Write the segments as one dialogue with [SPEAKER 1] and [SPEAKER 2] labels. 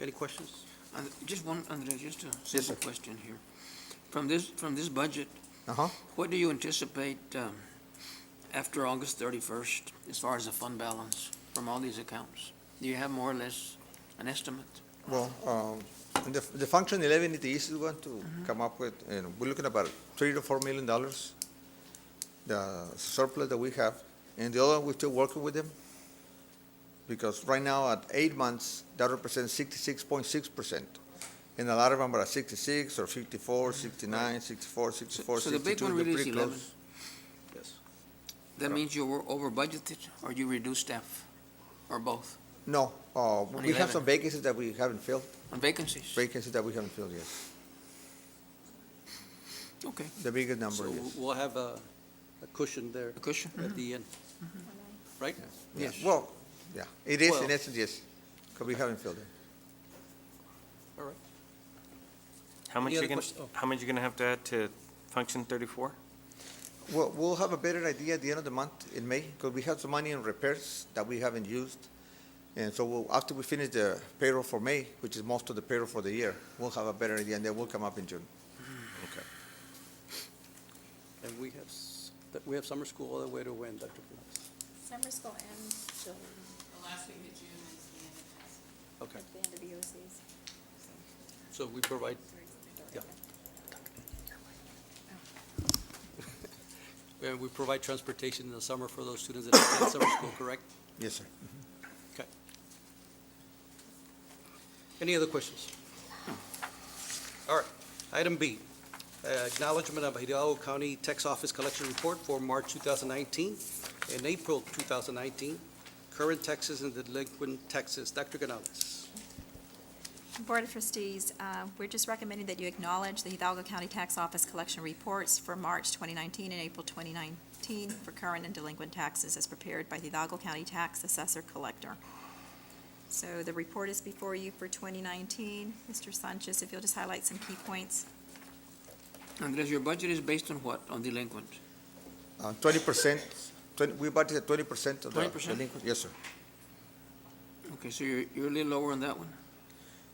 [SPEAKER 1] Any questions?
[SPEAKER 2] Uh, Just one, Andres, just a
[SPEAKER 1] sir.
[SPEAKER 2] simple question here. From this, from this budget,
[SPEAKER 1] Uh-huh.
[SPEAKER 2] what do you anticipate um, after August 31st as far as the fund balance from all these accounts? Do you have more or less an estimate?
[SPEAKER 1] Well, um, the, the function eleven it is the one to come up with, you know, we're looking at about three to four million dollars, the surplus that we have, and the other, we're still working with them. Because right now, at eight months, that represents sixty-six point six percent, and a lot of them are at sixty-six or 54, 69, 64, 64,
[SPEAKER 2] Mm-hmm. so the big
[SPEAKER 1] 62,
[SPEAKER 2] one
[SPEAKER 1] they're
[SPEAKER 2] really is
[SPEAKER 1] pretty
[SPEAKER 2] 11.
[SPEAKER 1] close. Yes.
[SPEAKER 2] That means you were over budgeted or you reduced staff or both
[SPEAKER 1] No, uh, we have
[SPEAKER 2] 11.
[SPEAKER 1] some vacancies that we haven't filled,
[SPEAKER 2] on vacancies?
[SPEAKER 1] vacancies that we haven't filled yet,
[SPEAKER 2] Okay,
[SPEAKER 1] the biggest number,
[SPEAKER 3] So
[SPEAKER 1] yes.
[SPEAKER 3] we'll have a a cushion there
[SPEAKER 2] a cushion?
[SPEAKER 3] at the end, right?
[SPEAKER 1] Yeah,
[SPEAKER 2] Yes.
[SPEAKER 1] well, yeah, it is in
[SPEAKER 3] Well-
[SPEAKER 1] essence, yes, because we haven't filled it.
[SPEAKER 4] How much
[SPEAKER 3] Any
[SPEAKER 4] you
[SPEAKER 3] other
[SPEAKER 4] gonna,
[SPEAKER 3] quest- oh.
[SPEAKER 4] how much you gonna have to add to function thirty-four?
[SPEAKER 1] We'll, we'll have a better idea at the end of the month in May, because we have some money in repairs that we haven't used. And so we'll, after we finish the payroll for May, which is most of the payroll for the year, we'll have a better idea, and then we'll come up in June. Mm-hmm.
[SPEAKER 3] And we have, s- that- we have summer school all the way to when, Dr. Flores?
[SPEAKER 5] Summer school ends till
[SPEAKER 6] The last week of June is the end of class.
[SPEAKER 3] Okay,
[SPEAKER 5] the end of EOCs.
[SPEAKER 3] so we provide, Yeah. and we provide transportation in the summer for those students that attend summer school, correct?
[SPEAKER 1] Yes, sir.
[SPEAKER 3] Any other questions? All right, item B, uh, acknowledgement of Hidalgo County Tax Office Collection Report for March 2019 and April 2019, current taxes and delinquent taxes. Dr. Canales.
[SPEAKER 7] Board of Trustees, uh, we're just recommending that you acknowledge the Hidalgo County Tax Office collection reports for March 2019 and April 2019 for current and delinquent taxes as prepared by the Hidalgo County Tax Assessor Collector. So the report is before you for 2019. Mr. Sanchez, if you'll just highlight some key points.
[SPEAKER 2] Andres, your budget is based on what? On delinquent?
[SPEAKER 1] Uh, twenty percent, twenty, we budgeted twenty percent of the
[SPEAKER 2] 20%?
[SPEAKER 1] delinquent. Yes, sir.
[SPEAKER 2] Okay, so you're, you're a little lower on that one?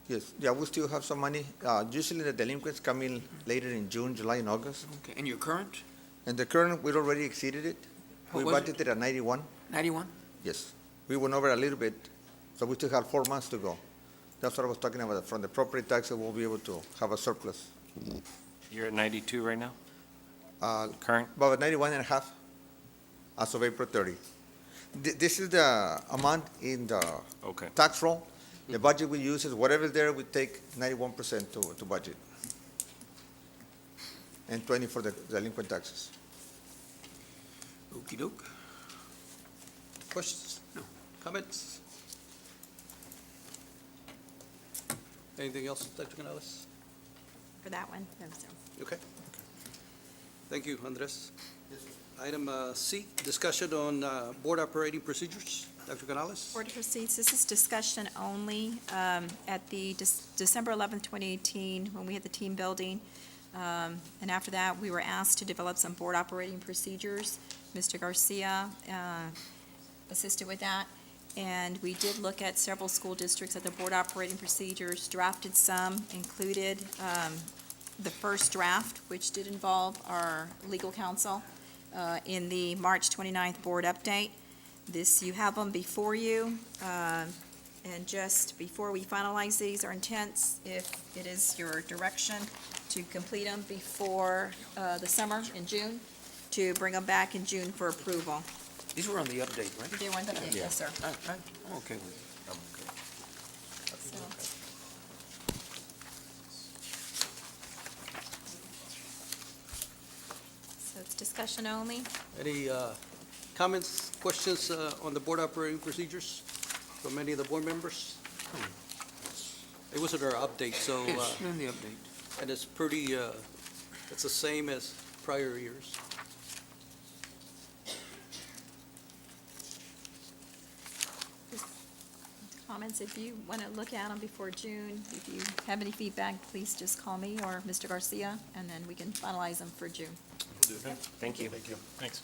[SPEAKER 1] Yes, yeah, we still have some money. Uh, usually the delinquents come in later in June, July, and August.
[SPEAKER 2] Okay, and your current?
[SPEAKER 1] And the current, we'd already exceeded it. We
[SPEAKER 2] What was it?
[SPEAKER 1] budgeted at ninety-one.
[SPEAKER 2] 91?
[SPEAKER 1] Yes, we went over a little bit, so we still have four months to go. That's what I was talking about, from the property taxes, we'll be able to have a surplus.
[SPEAKER 4] You're at ninety-two right now,
[SPEAKER 1] Uh,
[SPEAKER 4] current?
[SPEAKER 1] About ninety-one and a half as of April thirty. Th- This is the amount in the
[SPEAKER 4] Okay.
[SPEAKER 1] tax roll. The budget we use is whatever's there, we take ninety-one percent to, to budget. And twenty for the delinquent taxes.
[SPEAKER 2] Okey doke.
[SPEAKER 3] Questions?
[SPEAKER 2] No.
[SPEAKER 3] Comments? Anything else, Dr. Canales?
[SPEAKER 7] For that one? No, sir.
[SPEAKER 3] Okay. Thank you, Andres. Item uh, C, discussion on uh, board operating procedures. Dr. Canales?
[SPEAKER 7] Board of Trustees, this is discussion only. Um, At the Dec- December 11th, 2018, when we had the team building, um, and after that, we were asked to develop some board operating procedures. Mr. Garcia uh, assisted with that, and we did look at several school districts at the board operating procedures, drafted some, included um, the first draft, which did involve our legal counsel, uh, in the March 29th board update. This, you have them before you, um, and just before we finalize these, our intents, if it is your direction, to complete them before uh, the summer in June, to bring them back in June for approval.
[SPEAKER 2] These were on the update, right?
[SPEAKER 7] They want that, yes, sir.
[SPEAKER 2] I, I, I'm okay with it.
[SPEAKER 7] So, So it's discussion only.
[SPEAKER 3] Any uh, comments, questions uh, on the board operating procedures from any of the board members? It was in our update, so, uh,
[SPEAKER 2] Yes, in the update.
[SPEAKER 3] and it's pretty, uh, it's the same as prior years.
[SPEAKER 7] comments, if you want to look at them before June, if you have any feedback, please just call me or Mr. Garcia, and then we can finalize them for June.
[SPEAKER 4] Thank you. Thank you. Thanks.